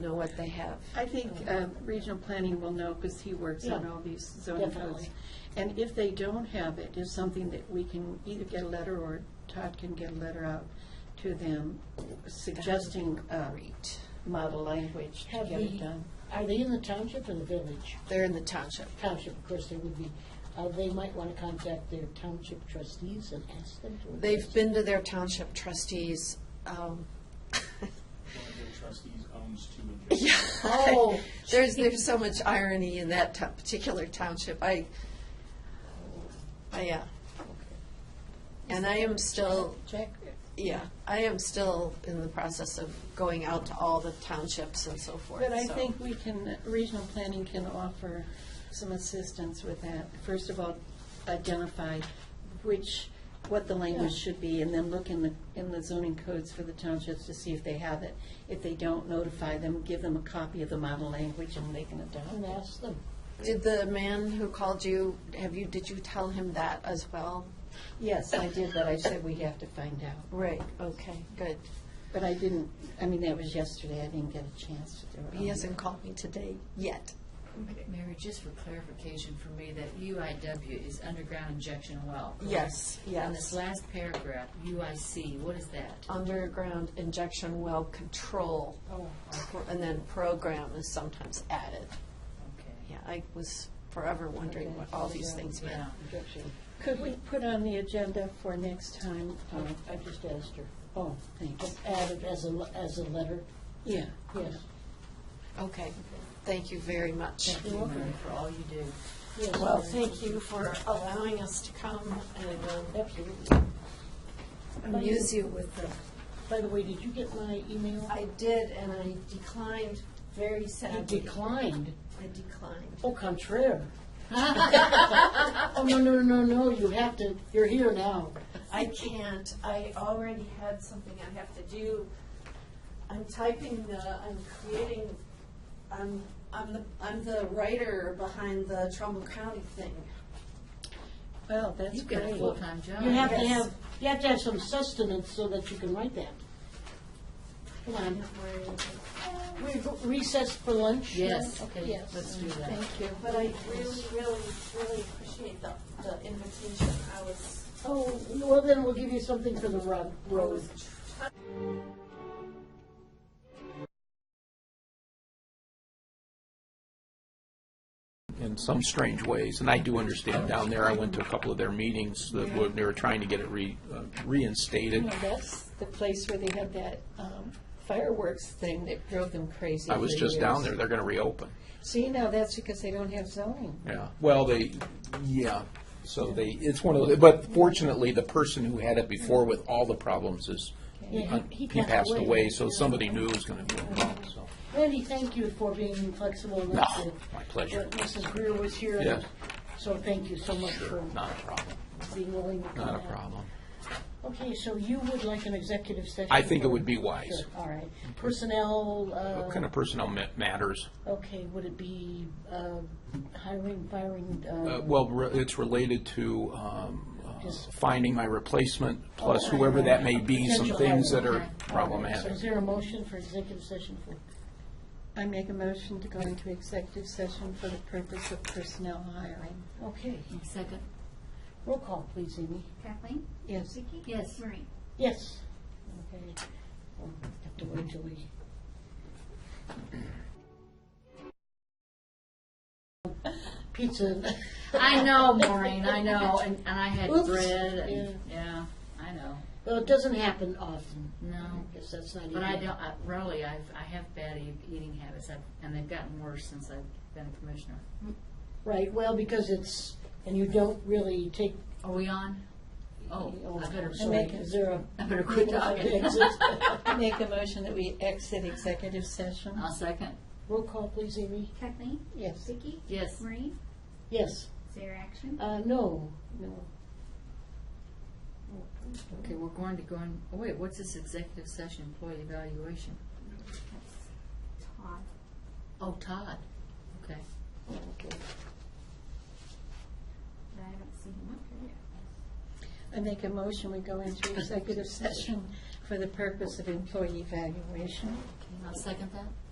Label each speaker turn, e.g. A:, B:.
A: know what they have.
B: I think uh, regional planning will know because he works on
A: Yeah,
B: all these zoning codes.
A: definitely.
B: And if they don't have it, it's something that we can either get a letter or Todd can get a letter out to them suggesting uh,
A: Great.
B: model language to
C: Have
B: get it
C: the,
B: done.
C: are they in the township or the village?
A: They're in the township.
C: Township, of course, they would be, uh, they might want to contact their township trustees and ask them to.
A: They've
C: invest.
A: been to their township trustees. um,
D: One of the trustees owns two interests.
A: Yeah.
C: Oh,
A: There's, there's so much irony in that to- particular township. I, I, yeah. And I am still,
B: Jack,
A: yeah, I am still in the process of going out to all the townships and so forth.
B: but I
A: so-
B: think we can, regional planning can offer some assistance with that. First of all, identify which, what the language
C: Yeah.
B: should be, and then look in the, in the zoning codes for the townships to see if they have it. If they don't, notify them, give them a copy of the model language, and they can adopt
C: And
B: it.
C: ask them.
A: Did the man who called you, have you, did you tell him that as well?
B: Yes, I did, but I said we have to find out.
A: Right, okay, good.
B: But I didn't, I mean, that was yesterday, I didn't get a chance to do it.
A: He hasn't called me today yet.
E: Mary, just for clarification for me, that UIW is underground injection well. correct?
A: Yes,
E: And this
A: yes. Oh,
E: last paragraph, UIC, what is that?
A: Underground injection well control,
E: Oh.
A: and then program is sometimes added.
E: Okay.
A: Yeah, I was forever wondering what all these things meant.
E: Yeah.
B: Could we put on the agenda for next time? uh,
C: I- I just asked her.
B: Oh, thanks.
C: Just add it as a, le- as a letter,
B: Yeah.
C: yes,
A: Okay, thank you very much.
E: Thank you, Mary, for all you do.
C: yes.
A: Well, thank you for allowing us to come and
C: Absolutely.
A: uh, amuse you with the
C: By the way, did you get my email?
A: I did, and I declined very
C: You
A: sadly.
C: declined.
A: I declined.
C: Au contraire. Oh, no, no, no, no, you have to, you're here now.
A: I can't. I already had something I have to do. I'm typing the, I'm creating, I'm, I'm the, I'm the writer behind the Trumbull County thing.
B: Well, that's
E: You've got a
B: great.
E: full-time job.
C: You have to
A: Yes.
C: have, you have to have some sustenance so that you can write that. Come on, we recess for lunch?
E: Yes,
C: now?
E: okay,
C: Yes.
E: let's do that.
C: Thank you.
F: But I really, really, really appreciate the, the invitation. I was
C: Oh, well, then we'll give you something for the ro- road.
G: in some strange ways, and I do understand down there, I went to a couple of their meetings that were, they were trying to get it re, uh,
B: No,
G: reinstated.
B: that's the place where they had that um, fireworks thing that drove them crazy.
G: I was
B: for
G: just down there,
B: years.
G: they're gonna reopen,
B: See, now that's because they don't have zoning.
G: yeah. Well, they, yeah, so they, it's one of the, but fortunately, the person who had it before with all the problems is,
C: Yeah, he- he
G: he passed
C: passed
G: away, so somebody knew it was gonna be involved, so.
C: Randy, thank you for being flexible
G: No,
C: enough to.
G: my pleasure,
C: But Mrs. Greer was here. and
G: Yes.
C: So thank you so much for
G: not a problem,
C: being willing to come
G: not a
C: out.
G: problem.
C: Okay, so you would like an executive session?
G: I think it would be
C: Sure,
G: wise. Mm-hmm.
C: all right. Personnel,
G: What
C: uh,
G: kind of personnel ma- matters?
C: okay, would it be uh, hiring, firing?
G: Uh,
C: uh,
G: Well, re- it's related to um, uh,
C: Just-
G: finding my replacement, plus
C: Okay.
G: whoever that may be, some
C: Potential
G: things that
C: hiring.
G: are
C: So
G: problematic.
C: is there a motion for executive session for,
B: I make a motion to go into executive session for the purpose of personnel hiring.
C: okay,
E: Second?
C: roll call, please, Amy.
H: Kathleen?
B: Yes.
H: Vicki?
E: Yes.
H: Maureen?
C: Yes. Okay. We'll Have to wait till we. Pizza.
E: I know, Maureen, I know, and, and I had
C: Oops.
E: bread, and, yeah, I know,
C: Well, it doesn't happen often.
E: no.
C: I guess that's not.
E: But I
C: even-
E: don't, I- really, I've, I have bad e- eating habits, I've- and they've gotten worse since I've been a commissioner.
C: Right, well, because it's, and you don't really take.
E: Are we on? Oh, I better,
C: So, Is there a?
E: I better quit talking.
B: I make a motion that we exit executive session.
E: I'll second,
C: Roll call, please, Amy.
H: Kathleen?
B: Yes.
H: Vicki?
E: yes.
H: Maureen?
C: Yes,
H: Is there action?
C: uh, no, no.
E: Okay, we're going to go in, oh wait, what's this executive session employee evaluation?
H: Todd?
E: Oh, Todd, okay.
H: I haven't seen him up here yet.
B: I make a motion we go into executive session for the purpose of employee evaluation.
E: I'll second that.